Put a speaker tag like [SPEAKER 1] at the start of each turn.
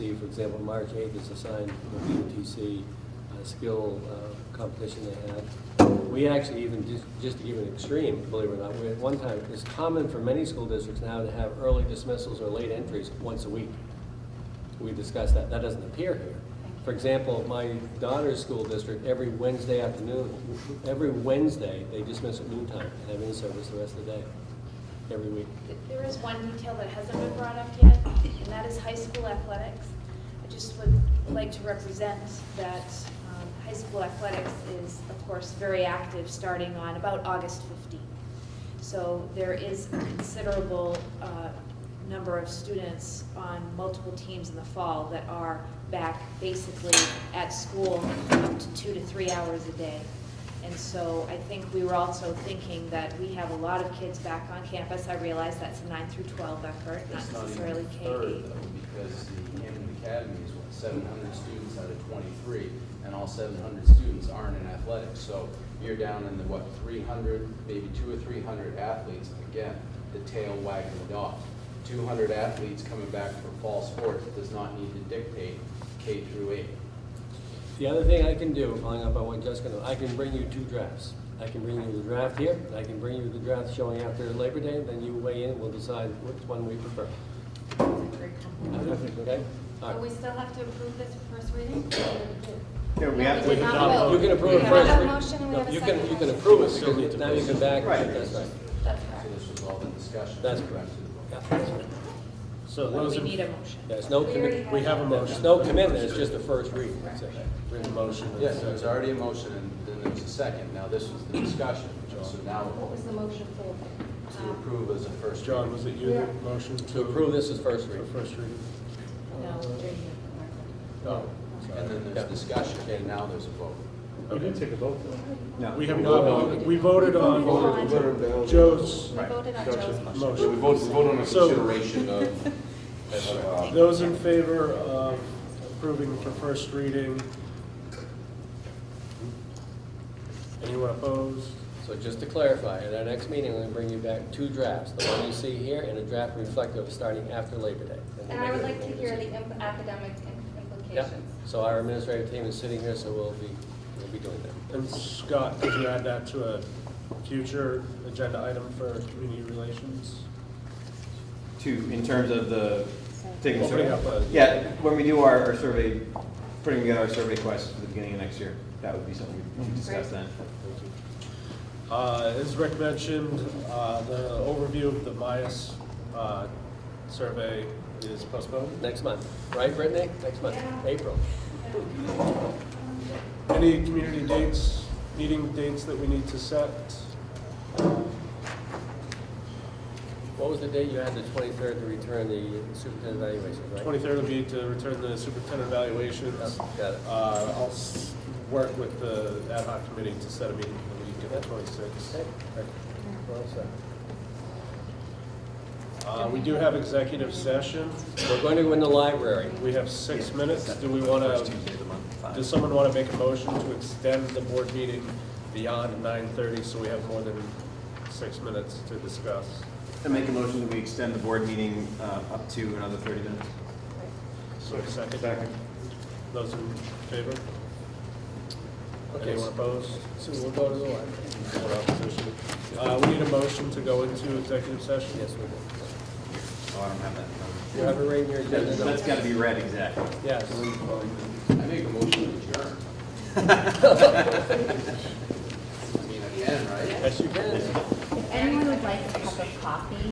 [SPEAKER 1] for example, March 8th is assigned the BOTC uh, skill uh, competition they had. We actually even, just- just to give an extreme, believe it or not, we at one time, it's common for many school districts now to have early dismissals or late entries once a week. We discussed that, that doesn't appear here. For example, my daughter's school district, every Wednesday afternoon, every Wednesday, they dismiss at noon time and have in-service the rest of the day, every week.
[SPEAKER 2] There is one detail that hasn't been brought up yet, and that is high school athletics. I just would like to represent that um, high school athletics is, of course, very active, starting on about August 15th. So there is a considerable uh, number of students on multiple teams in the fall that are back basically at school up to two to three hours a day. And so I think we were also thinking that we have a lot of kids back on campus. I realize that's a nine through 12 effort, not
[SPEAKER 3] It's not
[SPEAKER 2] necessarily
[SPEAKER 3] even a
[SPEAKER 2] K
[SPEAKER 3] third
[SPEAKER 2] eight.
[SPEAKER 3] though, because the Hammond Academy is what, seven hundred students out of twenty-three, and all seven hundred students aren't in athletics, so you're down in the, what, three hundred, maybe two or three hundred athletes, again, the tail wagging the dog. Two hundred athletes coming back for fall sports does not need to dictate K through eight.
[SPEAKER 1] The other thing I can do, following up on what Jessica, knows, I can bring you two drafts. I can bring you the draft here, and I can bring you the draft showing after Labor Day, then you weigh in, we'll decide which one we prefer. Okay? All
[SPEAKER 4] But we
[SPEAKER 1] right.
[SPEAKER 4] still have to approve this for first reading?
[SPEAKER 5] Yeah, we
[SPEAKER 4] No,
[SPEAKER 5] have
[SPEAKER 4] we
[SPEAKER 5] to.
[SPEAKER 4] did not vote.
[SPEAKER 1] You can
[SPEAKER 4] We
[SPEAKER 1] approve it
[SPEAKER 4] have
[SPEAKER 1] first.
[SPEAKER 4] a motion and we
[SPEAKER 1] No,
[SPEAKER 4] have a
[SPEAKER 1] you can-
[SPEAKER 4] second
[SPEAKER 1] You can
[SPEAKER 4] motion.
[SPEAKER 1] approve it, because now you can back, that's right.
[SPEAKER 4] That's
[SPEAKER 3] So
[SPEAKER 4] correct.
[SPEAKER 3] this was all the discussion.
[SPEAKER 1] That's correct. Yeah, that's right.
[SPEAKER 6] So
[SPEAKER 2] But
[SPEAKER 6] those
[SPEAKER 2] we
[SPEAKER 6] in-
[SPEAKER 2] need a motion.
[SPEAKER 1] There's no
[SPEAKER 4] We already
[SPEAKER 1] commitment,
[SPEAKER 6] we have a
[SPEAKER 1] there's
[SPEAKER 6] motion.
[SPEAKER 1] no commitment, it's just the first read. That's it.
[SPEAKER 6] Written motion.
[SPEAKER 3] Yes, there was already a motion, and then there was a second, now this was the discussion, so now
[SPEAKER 4] What was the motion for?
[SPEAKER 3] to approve as a first.
[SPEAKER 6] John, was it you that
[SPEAKER 4] Yeah.
[SPEAKER 6] motion to?
[SPEAKER 1] To approve this as first
[SPEAKER 6] For
[SPEAKER 1] read.
[SPEAKER 6] first reading?
[SPEAKER 4] No,
[SPEAKER 6] Oh,
[SPEAKER 3] And then
[SPEAKER 1] Yeah.
[SPEAKER 3] there's discussion, and now there's a vote.
[SPEAKER 6] We did take a vote,
[SPEAKER 5] No.
[SPEAKER 6] We have not voted, we voted on Joe's
[SPEAKER 4] We voted on Joe's motion.
[SPEAKER 7] We
[SPEAKER 6] motion.
[SPEAKER 7] vote, we vote on a
[SPEAKER 6] So-
[SPEAKER 7] consideration of, of, uh,
[SPEAKER 6] Those in favor of approving for first reading? Anyone opposed?
[SPEAKER 1] So just to clarify, at our next meeting, I'm going to bring you back two drafts, the one you see here, and a draft reflective of starting after Labor Day.
[SPEAKER 4] And I would like to hear the imp- academic im-
[SPEAKER 1] Yeah,
[SPEAKER 4] implications.
[SPEAKER 1] so our administrative team is sitting here, so we'll be, we'll be doing that.
[SPEAKER 6] And Scott, could you add that to a future agenda item for community relations?
[SPEAKER 5] To, in terms of the, taking a
[SPEAKER 6] Opening up
[SPEAKER 5] survey?
[SPEAKER 6] a-
[SPEAKER 5] Yeah, when we do our, our survey, putting together our survey questions for the beginning of next year, that would be something we could discuss then.
[SPEAKER 6] Uh, As Rick mentioned, uh, the overview of the MIAS uh, survey is postponed.
[SPEAKER 1] Next month, right, Brittany? Next month, April.
[SPEAKER 6] Any community dates, meeting dates that we need to set?
[SPEAKER 1] What was the date you had, the 23rd, to return the superintendent evaluation, right?
[SPEAKER 6] 23rd will be to return the superintendent evaluations.
[SPEAKER 1] Yep, got it.
[SPEAKER 6] Uh, I'll s- work with the ad hoc committee to set a meeting for the week of the
[SPEAKER 1] Okay,
[SPEAKER 6] 26th.
[SPEAKER 1] all right. We're all set.
[SPEAKER 6] Uh, We do have executive session.
[SPEAKER 1] We're going to go in the library.
[SPEAKER 6] We have six minutes. Do we want to Does someone want to make a motion to extend the board meeting beyond nine thirty, so we have more than six minutes to discuss?
[SPEAKER 5] I make a motion that we extend the board meeting uh, up to another 30 minutes. Oh,
[SPEAKER 6] So a second. Those in favor?
[SPEAKER 1] Okay,
[SPEAKER 6] Anyone
[SPEAKER 1] so
[SPEAKER 6] opposed?
[SPEAKER 1] so we'll go to the library.
[SPEAKER 6] Or opposition? Uh, we need a motion to go into executive session?
[SPEAKER 1] Yes, we do.
[SPEAKER 5] Oh, I don't have that.
[SPEAKER 1] You have it right in your agenda.
[SPEAKER 5] That's-
[SPEAKER 1] don't
[SPEAKER 5] That's
[SPEAKER 1] you?
[SPEAKER 5] got to be read exactly.
[SPEAKER 1] Yes.
[SPEAKER 3] I make a motion to adjourn. I mean, I can, right?
[SPEAKER 6] Yes, you can.
[SPEAKER 8] Anyone would like a cup of coffee?